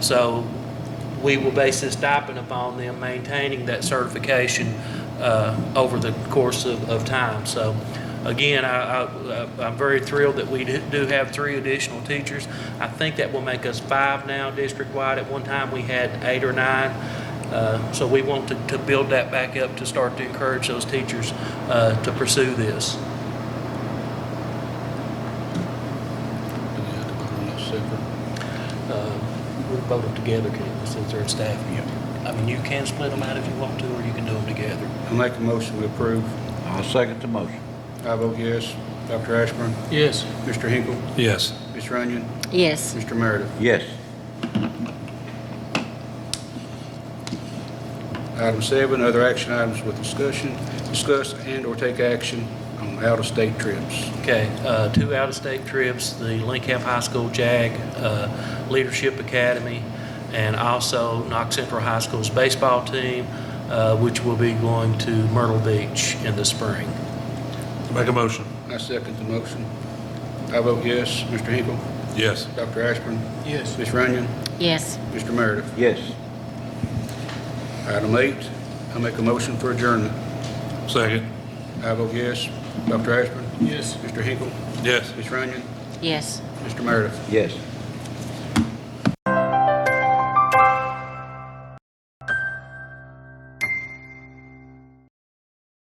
So we will base this stipend upon them maintaining that certification uh, over the course of, of time. So again, I, I, I'm very thrilled that we do do have three additional teachers. I think that will make us five now district-wide. At one time, we had eight or nine. Uh, So we want to, to build that back up to start to encourage those teachers uh, to pursue this. Uh, We vote them together, Kevin, since they're in staff. I mean, you can split them out if you want to, or you can do them together. I make a motion to approve. I'll second the motion. I vote yes. Dr. Ashburn? Yes. Mr. Hinkle? Yes. Ms. Runyon? Yes, Mr. Meredith? Yes. Item seven, other action items with discussion, discuss and/or take action on out-of-state trips. Okay, uh, two out-of-state trips, the Lincoln High School JAG uh, Leadership Academy, and also Knox Central High School's baseball team, uh, which will be going to Myrtle Beach in the spring. Make a motion. I second the motion. I vote yes. Mr. Hinkle? Yes. Dr. Ashburn? Yes. Ms. Runyon? yes, Mr. Meredith? Yes. Item eight, I make a motion for adjournment. Second. I vote yes. Dr. Ashburn? Yes. Mr. Hinkle? Yes. Ms. Runyon? yes. Mr. Meredith? Yes.